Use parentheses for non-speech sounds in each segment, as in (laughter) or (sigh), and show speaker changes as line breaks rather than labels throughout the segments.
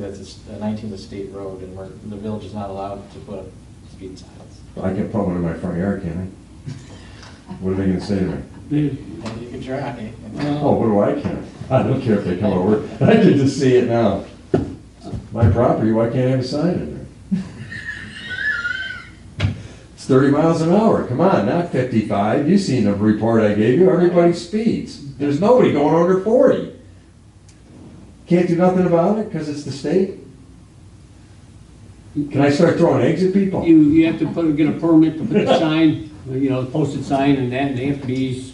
That's a s- a 19th is a state road, and we're, the village is not allowed to put up speed signs.
I can put one in my front yard, can't I? What are they gonna say to me?
Dude,
And you can try.
Oh, what do I care? I don't care if they come over, (laughs) I can just see it now. My property, why can't I have a sign in there? It's thirty miles an hour, come on, not fifty-five, you seen the report I gave you, everybody speeds, there's nobody going under forty. Can't do nothing about it, cause it's the state? Can I start throwing eggs at people?
you, you have to put, get a permit to put the sign, you know, posted sign and that, and they have to be,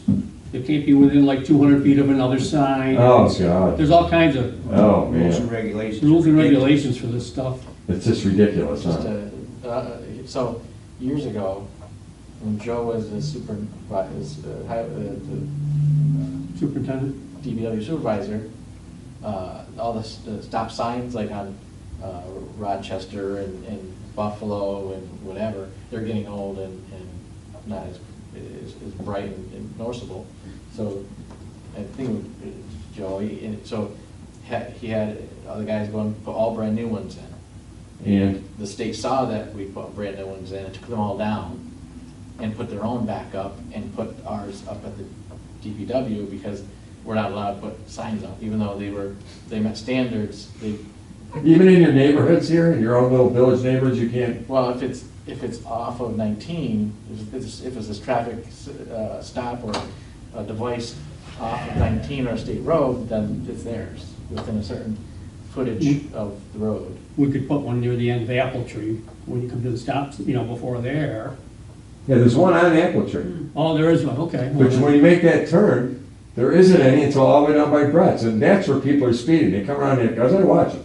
they can't be within like two hundred feet of another sign.
Oh, God,
There's all kinds of
oh,
Rules and
man,
regulations.
rules and regulations for this stuff.
it's just ridiculous,
Just
huh?
a, uh, so, years ago, when Joe was a super, was, uh, hi- uh, the,
Superintendent,
uh, DPW supervisor, uh, all the s- the stop signs, like on uh, Rochester and and Buffalo and whatever, they're getting old and and not as, as as bright and and noticeable. So, I think it's Joey, and so, ha- he had other guys going, put all brand new ones in
And
the state saw that we put brand new ones in, and took them all down, and put their own back up, and put ours up at the DPW, because we're not allowed to put signs up, even though they were, they met standards, they,
Even in your neighborhoods here, in your own little village neighborhoods, you can't,
well, if it's, if it's off of nineteen, if it's, if it's this traffic, uh, stop or a device off of nineteen or a state road, then it's theirs, within a certain footage of the road.
we could put one near the end of the apple tree, when you come to the stops, you know, before there.
yeah, there's one on Apple Tree.
Oh, there is one, okay.
But when you make that turn, there isn't any until all the way down by Brett's, and that's where people are speeding, they come around here, because I watch them.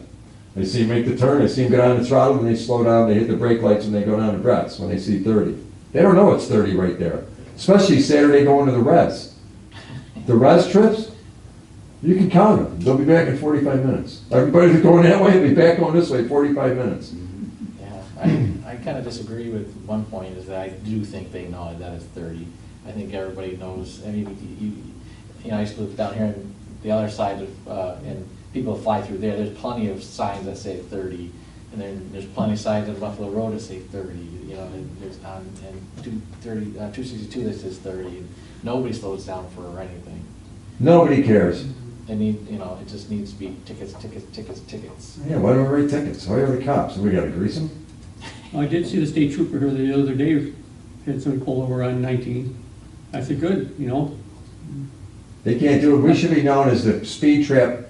They see him make the turn, they see him go down the throttle, and they slow down, they hit the brake lights, and they go down to Brett's when they see thirty. They don't know it's thirty right there, especially Saturday going to the res. The res trips, you can count them, they'll be back in forty-five minutes. Everybody's going that way, they'll be back going this way, forty-five minutes.
Yeah, I, I kind of disagree with one point, is that I do think they know that it's thirty. I think everybody knows, I mean, you- you, you know, I used to live down here on the other side of, uh, and people fly through there, there's plenty of signs that say thirty, and then there's plenty of signs on Buffalo Road that say thirty, you know, and there's, on and two, thirty, uh, two sixty-two that says thirty, and nobody slows down for anything.
Nobody cares.
They need, you know, it just needs to be tickets, tickets, tickets, tickets.
Yeah, why don't we write tickets? Why are the cops? We gotta grease them?
Oh, I did see the state trooper here the other day, had somebody pull over on nineteen. I said, good, you know,
They can't do it. We should be known as the speed trap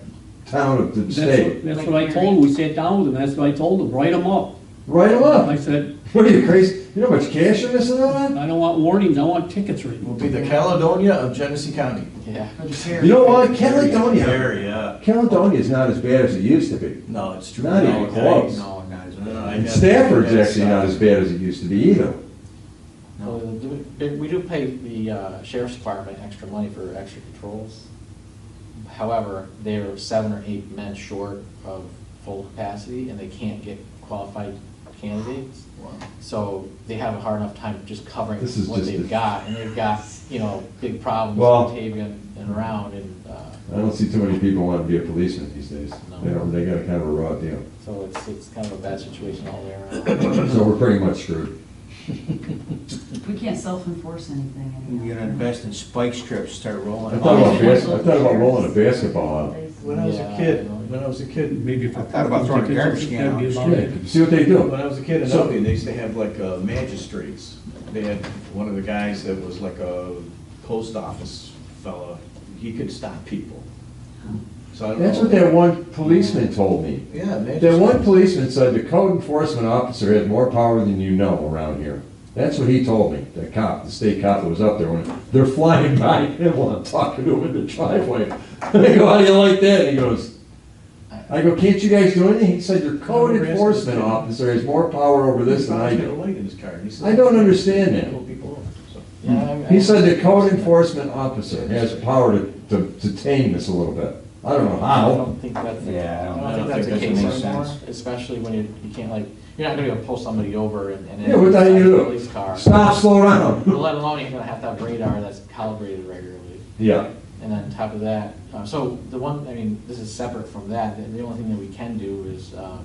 town of the
that's, what-
state.
that's what I told him, we sat down with him, that's what I told him, write them up.
Write them
I
up. (laughs)
said,
What are you crazy? You know how much cash you're missing out on?
I don't want warnings, I want tickets written.
Will be the Caledonia of Genesee County.
Yeah.
You know what? Caledonia.
Area.
Caledonia is not as bad as it used to be.
No, it's true.
Not even
No,
close.
No, not as- no, I
And
got-
Stafford's
that's,
actually
uh,
not as bad as it used to be either.
Well,
No.
do We we do pay the uh, sheriff's department extra money for extra patrols. However, they're seven or eight men short of full capacity, and they can't get qualified candidates.
Wow.
So they have a hard enough time just covering
This is
what
just
they've
a-
got, and they've got, you know, big problems
Well-
in Batavia and around, and uh,
I don't see too many people wanting to be a policeman these days.
No.
They don't, they got a kind of a raw deal.
so it's, it's kind of a bad situation all the way around.
So we're pretty much screwed.
We can't self-enforce anything anymore.
We're gonna invest in spike strips, start
I
rolling.
thought
them
about,
out.
bas- I thought about rolling a basketball out.
When I was a kid, when I was a kid,
Maybe if.
I thought about throwing a garbage can
That'd be
out.
about
Yeah,
it.
see what they do.
when I was a kid in
So-
Albion, they used to have like uh, magistrates. They had one of the guys that was like a post office fella. He could stop people. So I don't know.
That's what that one policeman told me.
Yeah,
That one
magistrates.
policeman said the code enforcement officer has more power than you know around here. That's what he told me, the cop, the state cop that was up there, when they're flying (laughs) by him while I'm talking to him in the driveway. (laughs) I go, how do you like that? He goes, I go, can't you guys do anything? He said, your code enforcement officer has more power over this than I
He had a
do.
light in his car, and he said-
I don't understand that.
Pull people over, so.
Yeah, I-
He said the code enforcement officer has power to, to, to tame this a little bit. I don't know
I
how.
don't think that's, the-
Yeah, I don't-
I don't think that's the
doesn't
case
make
anymore,
sense.
especially when you, you can't like, you're not gonna go pull somebody over and. and then
Yeah, what the hell you
decide to
do?
Police car.
Stop, slow down. (laughs)
Let alone you're gonna have to have radar that's calibrated regularly.
Yeah,
And on top of that, uh, so the one, I mean, this is separate from that, the the only thing that we can do is, uh,